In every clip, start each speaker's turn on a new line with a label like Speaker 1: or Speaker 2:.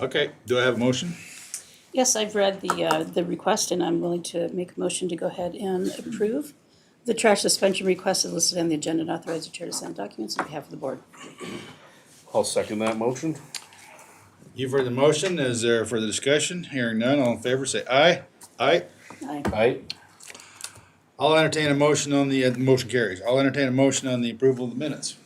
Speaker 1: Okay, do I have a motion?
Speaker 2: Yes, I've read the, uh, the request, and I'm willing to make a motion to go ahead and approve. The trash suspension request is listed on the agenda and authorize the chair to send documents on behalf of the board.
Speaker 3: I'll second that motion.
Speaker 1: You've heard the motion. Is there further discussion? Hearing none, all in favor, say aye. Aye.
Speaker 2: Aye.
Speaker 3: Aye.
Speaker 1: I'll entertain a motion on the, uh, motion carries. I'll entertain a motion on the approval of the minutes.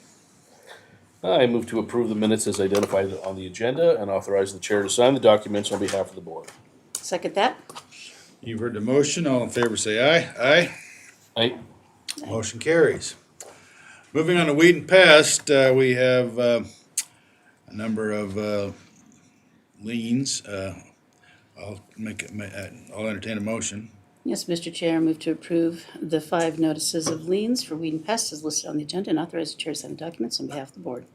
Speaker 3: I move to approve the minutes as identified on the agenda and authorize the chair to sign the documents on behalf of the board.
Speaker 2: Second that?
Speaker 1: You've heard the motion. All in favor, say aye. Aye.
Speaker 3: Aye.
Speaker 1: Motion carries. Moving on to weed and pest, uh, we have, uh, a number of, uh, liens. Uh, I'll make, it. ma- uh, I'll entertain a motion.
Speaker 2: Yes, Mr. Chair, I move to approve the five notices of liens for weed and pest is listed on the agenda and authorize the chair to send documents on behalf of the board.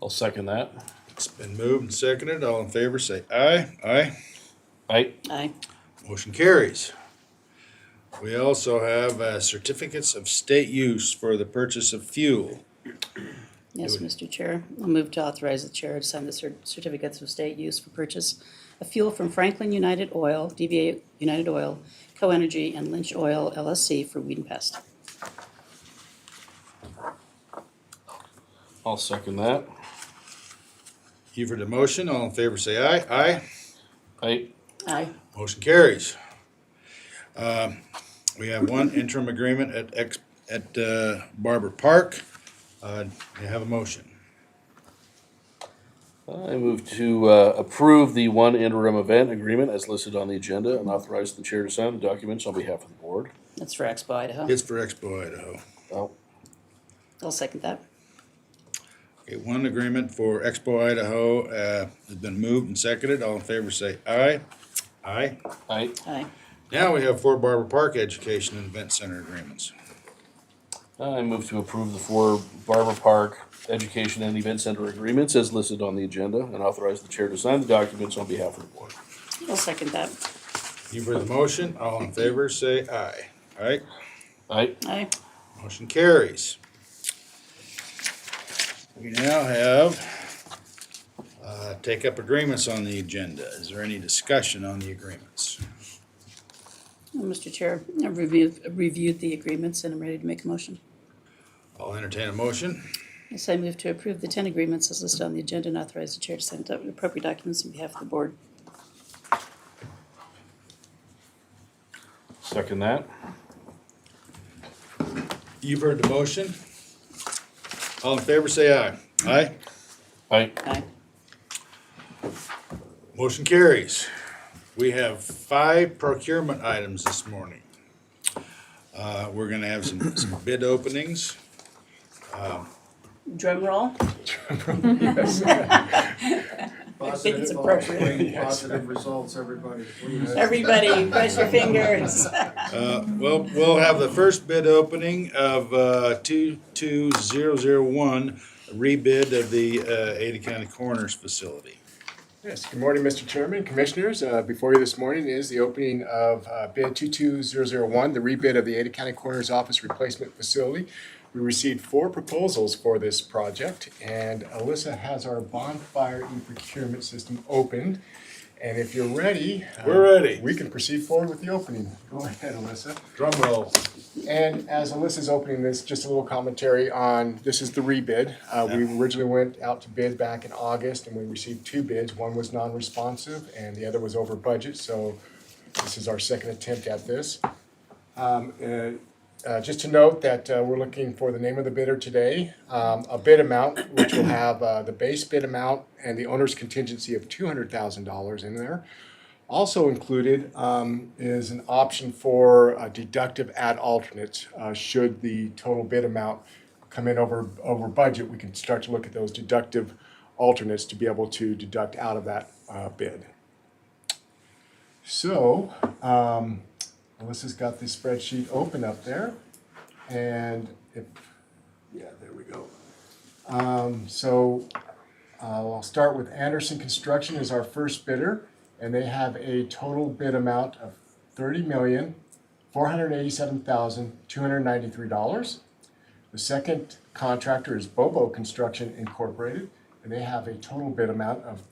Speaker 3: I'll second that.
Speaker 1: It's been moved and seconded. All in favor, say aye. Aye.
Speaker 3: Aye.
Speaker 2: Aye.
Speaker 1: Motion carries. We also have uh, certificates of state use for the purchase of fuel.
Speaker 2: Yes, Mr. Chair, I'll move to authorize the chair to sign the cer- certificates of state use for purchase of fuel from Franklin United Oil, DBA United Oil, Co-Energy, and Lynch Oil LLC for weed and pest.
Speaker 3: I'll second that.
Speaker 1: You've heard the motion. All in favor, say aye. Aye.
Speaker 3: Aye.
Speaker 2: Aye.
Speaker 1: Motion carries. Um, We have one interim agreement at ex, at uh, Barber Park. Uh, do You have a motion.
Speaker 3: I move to uh, approve the one interim event agreement as listed on the agenda and authorize the chair to sign the documents on behalf of the board.
Speaker 2: That's for Expo Idaho.
Speaker 1: It's for Expo Idaho.
Speaker 3: Oh,
Speaker 2: I'll second that.
Speaker 1: Okay, one agreement for Expo Idaho uh, has been moved and seconded. All in favor, say aye. Aye.
Speaker 3: aye.
Speaker 2: Aye.
Speaker 1: Now we have Fort Barber Park Education and Event Center agreements.
Speaker 3: I move to approve the four Barber Park Education and Event Center agreements as listed on the agenda and authorize the chair to sign the documents on behalf of the board.
Speaker 2: I'll second that.
Speaker 1: You've heard the motion. All in favor, say aye. Aye.
Speaker 3: Aye.
Speaker 2: Aye.
Speaker 1: Motion carries. We now have uh, take up agreements on the agenda. Is there any discussion on the agreements?
Speaker 2: Well, Mr. Chair, I've reviewed, reviewed the agreements and I'm ready to make a motion.
Speaker 1: I'll entertain a motion.
Speaker 2: Yes, I move to approve the ten agreements as listed on the agenda and authorize the chair to send out appropriate documents on behalf of the board.
Speaker 3: Second that.
Speaker 1: You've heard the motion. All in favor, say aye. Aye.
Speaker 3: Aye.
Speaker 2: Aye.
Speaker 1: Motion carries. We have five procurement items this morning. Uh, We're gonna have some some bid openings.
Speaker 2: Drum roll. I think it's appropriate.
Speaker 4: Positive, uh, positive results, everybody. please.
Speaker 2: Everybody, press your fingers.
Speaker 1: Uh, Well, we'll have the first bid opening of uh, 22001, a rebid of the uh, Ada County Coroner's Facility.
Speaker 4: Yes, good morning, Mr. Chairman, Commissioners. Uh, Before you this morning is the opening of uh, bid 22001, the rebid of the Ada County Coroner's Office Replacement Facility. We received four proposals for this project, and Alyssa has our bonfire e-procurement system opened. And if you're ready. uh,
Speaker 1: We're ready.
Speaker 4: We can proceed forward with the opening. Go ahead, Alyssa.
Speaker 1: Drum roll.
Speaker 4: And as Alyssa's opening this, just a little commentary on, this is the rebid. Uh, we originally went out to bid back in August and we received two bids. One was non-responsive and the other was over budget, so this is our second attempt at this. Um, uh, uh, just to note that, uh, we're looking for the name of the bidder today, um, a bid amount, which will have, uh, the base bid amount and the owner's contingency of two hundred thousand dollars in there. Also included um, is an option for a deductive ad alternate. uh, Should the total bid amount come in over, over budget, we can start to look at those deductive alternates to be able to deduct out of that uh, bid. So um, Melissa's got the spreadsheet open up there. And if, yeah, there we go. Um, So uh, I'll start with Anderson Construction is our first bidder, and they have a total bid amount of thirty million, four hundred eighty-seven thousand, two hundred ninety-three dollars. The second contractor is Bobo Construction Incorporated, and They have a total bid amount of